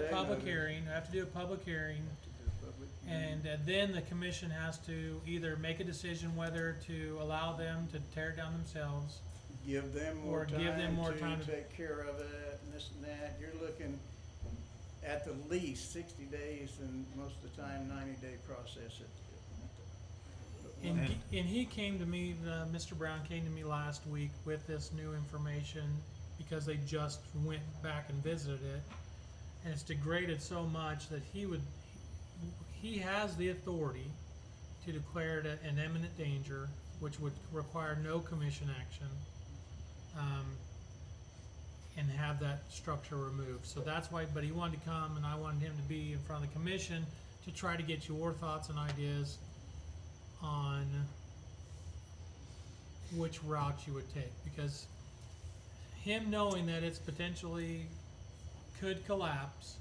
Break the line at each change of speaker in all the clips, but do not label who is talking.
public hearing, I have to do a public hearing, and uh, then the commission has to either make a decision whether to allow them to tear it down themselves.
Give them more
Or give them
time
more time
to
to-
take care of it and this and that. You're looking at the least sixty days and most of the time ninety day process. It-
And,
And-
he- and he came to me, uh, Mr. Brown came to me last week with this new information because they just went back and visited it. And it's degraded so much that he would, he has the authority to declare it a- an imminent danger, which would require no commission action. Um, and have that structure removed. So that's why, but he wanted to come and I wanted him to be in front of the commission to try to get your thoughts and ideas on which route you would take because him knowing that it's potentially could collapse,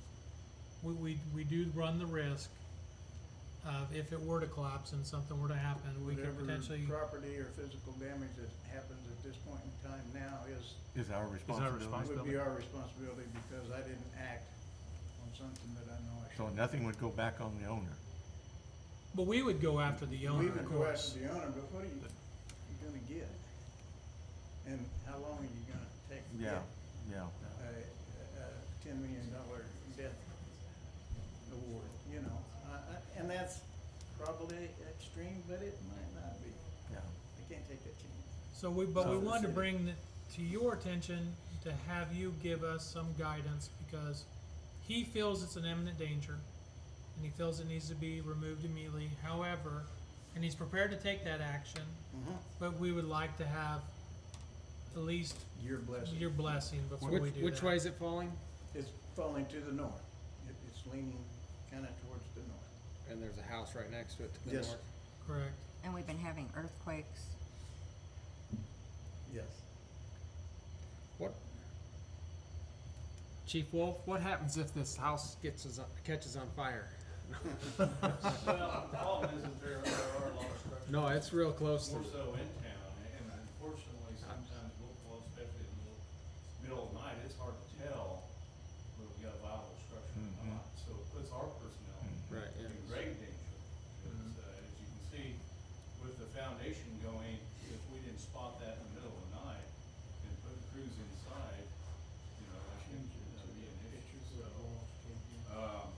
we, we, we do run the risk of if it were to collapse and something were to happen, we could
Whatever
potentially,
property or physical damage that happens at this point in time now is,
Is our responsibility.
would be our responsibility because I didn't act on something that I know I should.
So nothing would go back on the owner.
but we would go after the owner,
We
of
would go
course.
after the owner, but what are you, you gonna get? And how long are you gonna take to
Yeah,
get
yeah.
a, a ten million dollar death award, you know? I- I- And that's probably extreme, but it might not be.
Yeah.
I can't take that chance.
So we, but we
Not for the
wanted to
city.
bring the- to your attention to have you give us some guidance because he feels it's an imminent danger and he feels it needs to be removed immediately. However, and he's prepared to take that action, but we would like to have at least
Your blessing.
your blessing before we
Which,
do
which
that.
way is it falling?
It's falling to the north. It, it's leaning kinda towards the north.
And there's a house right next to it to the
Yes.
north.
Correct.
And we've been having earthquakes.
Yes.
What? Chief Wolf, what happens if this house gets us, catches on fire?
Well, the problem is that there are, there are a lot of structures,
No, it's real close to.
more so in town, and unfortunately, sometimes we'll, well, especially in the middle of the night, it's hard to tell when we've got a viable structure or
Mhm.
not, so it puts our personnel
Mm.
Right, yeah.
in great danger. Because, uh, as you can see, with the foundation going, if we didn't spot that in the middle of the night and put crews inside, you know, that could uh, be an issue, so, um,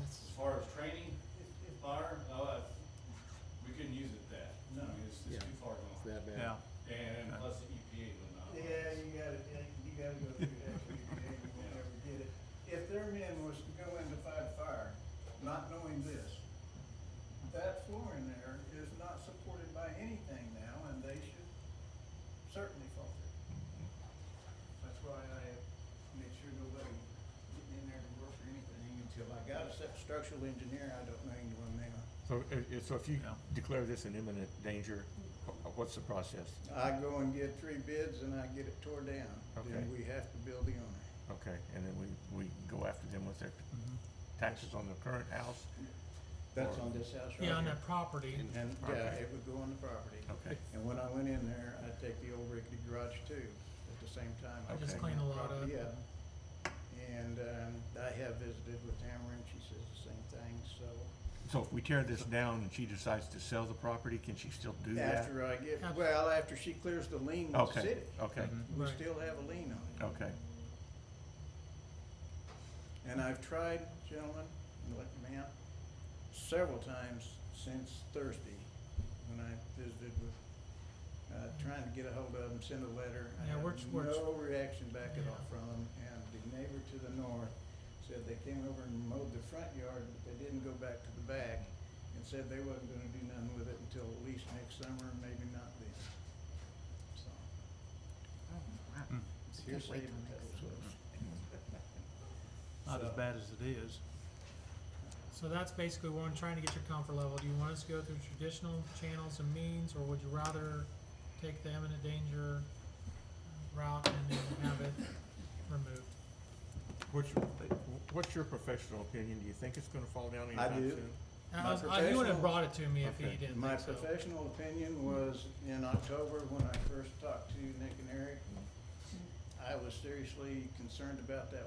That's,
as far as training, fire, uh, we couldn't use it that, I mean, it's, it's too far
it's
gone.
that bad.
Yeah.
And plus the EPA will not.
Yeah, you gotta, you gotta go through that, you will never get it. If their men was to go in to fight a fire, not knowing this, that floor in there is not supported by anything now, and they should certainly fall through. That's why I made sure nobody getting in there to work or anything until I got a se- structural engineer, I don't know anyone now.
So, i- i- so if you declare this an imminent danger, wh- what's the process?
I go and get three bids and I get it tore down,
Okay.
then we have to build the owner.
Okay, and then we, we go after them with their taxes on their current house?
That's on this house right here.
Yeah, on that property.
And, yeah, it would go on the property.
Okay,
And when I went in there, I'd take the old rickety garage too, at the same time.
I just
Okay.
cleaned a lot up.
Yeah. And, um, I have visited with Tamara and she says the same thing, so.
so if we tear this down and she decides to sell the property, can she still do that?
After I get,
Ab-
well, after she clears the lien with the
Okay,
city,
okay,
Mm-hmm.
we
Right.
still have a lien on it.
Mm-hmm. okay.
And I've tried, gentlemen, and let me out, several times since Thursday, when I visited with, uh, trying to get a hold of them, send a letter. I
Yeah,
had
we're- we're-
No reaction back at all
Yeah.
from them, and the neighbor to the north said they came over and mowed the front yard, but they didn't go back to the back, and said they wasn't gonna do nothing with it until at least next summer, maybe not then. So, Mm.
Can't
seriously,
wait till next
that's what-
Not as
So-
bad as it is.
So that's basically what I'm trying to get your comfort level. Do you want us to go through traditional channels and means, or would you rather take the imminent danger route and then have it removed?
What's your, what's your professional opinion? Do you think it's gonna fall down anytime
do.
soon?
I
My
was- I- Uh, you would have
professional-
brought it to me if you
Okay.
didn't
My
think so.
professional opinion was in October when I first talked to Nick and Eric. I was seriously concerned about that